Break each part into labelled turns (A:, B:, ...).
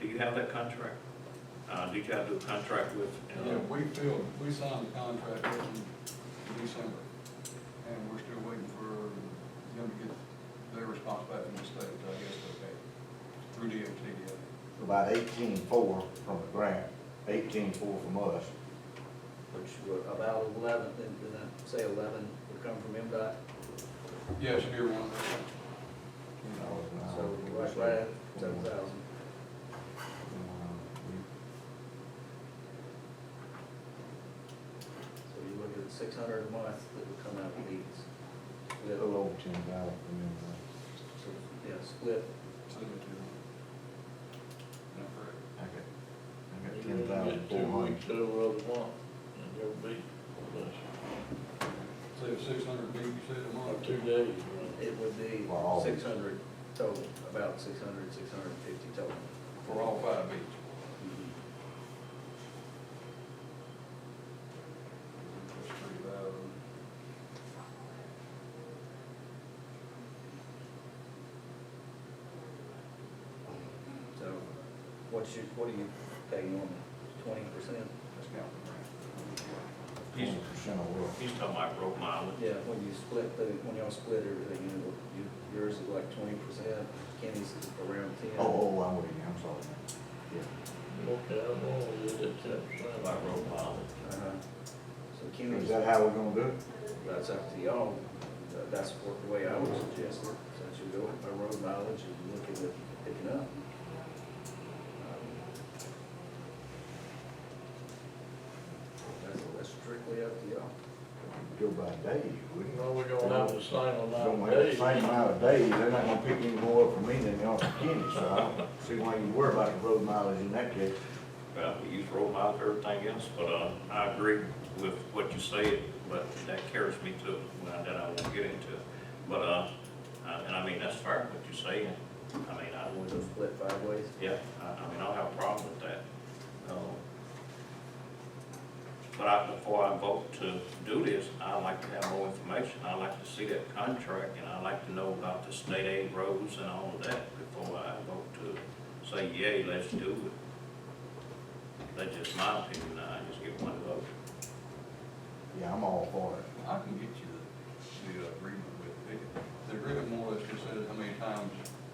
A: Do you have that contract? Uh, did y'all do a contract with? uh,
B: Yeah, we filled, we signed the contract back in December, and we're still waiting for them to get their response back from the state, I guess, okay, through DOT, yeah.
C: About eighteen-four from the grant, eighteen-four from us.
D: which were about eleven, didn't didn't I say eleven would come from MDOT?
B: Yes, you're one.
C: uh,
D: So
C: Oh,
D: right, right at
C: Mm-hmm.
D: seven thousand. So you look at six hundred a month that would come out of these.
C: A
D: Split,
C: little over ten thousand from them.
D: so, Yeah, split.
B: Seventy-two.
C: I got, uh, I got
E: You
C: ten thousand
E: get Two
C: four
E: weeks
C: hundred.
E: over the month, and you'll be, that's
B: Say it's six hundred feet, you said a month.
E: two days, right?
D: It would be
C: For all.
D: six hundred total, about six hundred, six hundred and fifty total.
B: For all five beats.
C: Mm-hmm.
B: That's pretty bad.
D: So what's your, what do you pay normally? Twenty percent?
B: That's counting the grant.
A: He's,
C: Twenty percent of what?
A: he's talking about road mileage.
D: Yeah, when you split the, when y'all split everything, you know, you- yours is like twenty percent, Kenny's is around ten.
C: Oh, oh, I'm with you, I'm sorry. Yeah,
E: Okay, I'm all with it, that's fine.
A: By road mileage.
D: Uh-huh. So
C: is
D: Kenny's,
C: that how we're gonna do it?
D: that's up to y'all, Tha- that's what- the way I would suggest it, since you're going by road mileage and looking at picking up. Um, That's, that's strictly up to y'all.
C: Go by day, you wouldn't.
E: Well, we're gonna have the same amount
C: Don't
E: of
C: have the
E: days.
C: same amount of days, they're not gonna pick any more up from me than they are from Kenny, so I don't see why you worry about the road mileage in that case.
A: Well, we use road miles, everything else, but, uh, I agree with what you said, but that carries me to, well, that I won't get into. But, uh, I- and I mean, that's fair, what you're saying. I mean, I
D: With
A: would,
D: a split five ways,
A: yeah, I, I mean, I don't have a problem with that. Um, But I, before I vote to do this, i like to have more information. i like to see that contract, and i like to know about the state aid roads and all of that before I vote to say, yay, let's do it. That's just my opinion, I just give one vote.
C: Yeah, I'm all for it.
B: I can get you the, the agreement with, it. the agreement more or less just says how many times,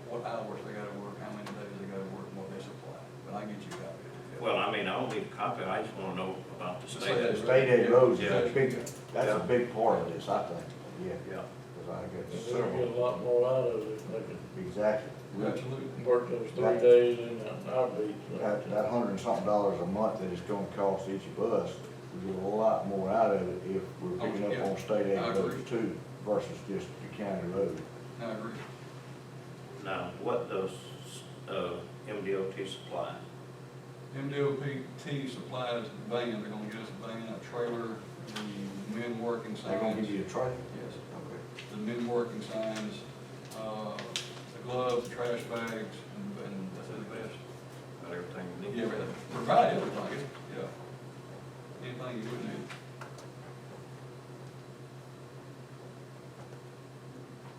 B: what hours they gotta work, how many days they gotta work, and what they supply, but I can get you a copy. of it.
A: Well, I mean, I don't need a copy, I just wanna know about the
B: Just
A: state
B: say
A: aid.
B: that.
C: State aid roads is a
B: Yeah.
C: big, that's
A: Yeah.
C: a big part of this, I think, yeah,
A: Yeah,
C: because I got
E: We'll get
C: several,
E: a lot more out of it if I
C: exactly.
B: Absolutely.
E: can work those three days in an outreach.
C: That, that hundred and something dollars a month that it's gonna cost each of us, we get a lot more out of it if we're picking up on state aid
B: Yeah, I agree.
C: roads too versus just the county road.
B: No, I agree.
A: now, what does, uh, MDOT supply?
B: MDOPT supplies the van, they're gonna get us a van, a trailer, the men working signs.
C: They're gonna give you a trailer?
B: Yes,
C: Okay.
B: the men working signs, uh, the gloves, trash bags, and, and that's the best.
A: Got everything you need?
B: Yeah, but provide everything, yeah. Anything you would need.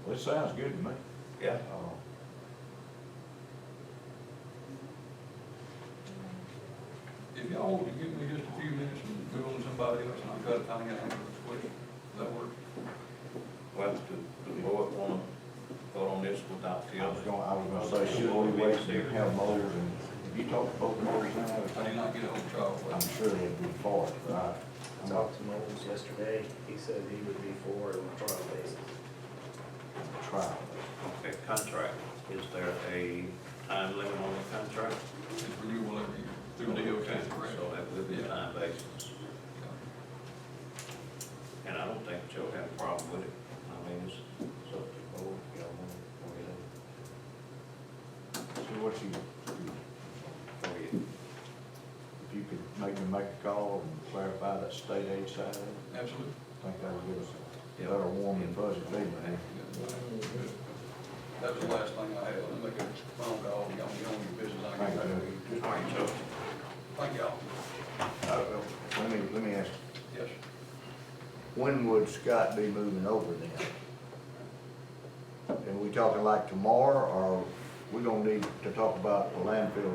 C: Well, it sounds good to me.
A: Yeah,
C: Uh,
B: If y'all want to give me just a few minutes and move on to somebody else, and I've got to find out how to switch, does that work?
A: Well, do the board want to vote on this without the
C: I was
A: other?
C: gonna, I was gonna say, should we wait till you have mowers and, if you talk to both mowers now,
B: I did not get a hold of Charles,
C: I'm
B: but
C: sure they'd be for it, but I,
D: I
C: I'm not
D: talked to Knowles yesterday, he said he would be for it on a trial basis.
C: trying.
A: Okay, contract, is there a time limit on the contract?
B: it's renewable every year, through DOT, correct?
A: So that would be a time basis,
B: Yeah.
A: and I don't think Joe had a problem with it. I mean, it's, it's up to the board, y'all want to, go ahead.
C: So what you,
A: Go ahead.
C: if you could make me make a call and clarify that state aid side, of it,
B: Absolutely.
C: I think that would give us a better warm and fuzzy feeling.
B: That was the last thing I had, I'm making a phone call, y'all, y'all on your business, I can
C: Thank
B: tell
C: you.
B: you.
A: All right, Joe,
B: Thank y'all.
C: Uh, Let me, let me ask,
B: Yes.
C: when would Scott be moving over then? And we talking like tomorrow, or we gonna need to talk about the landfill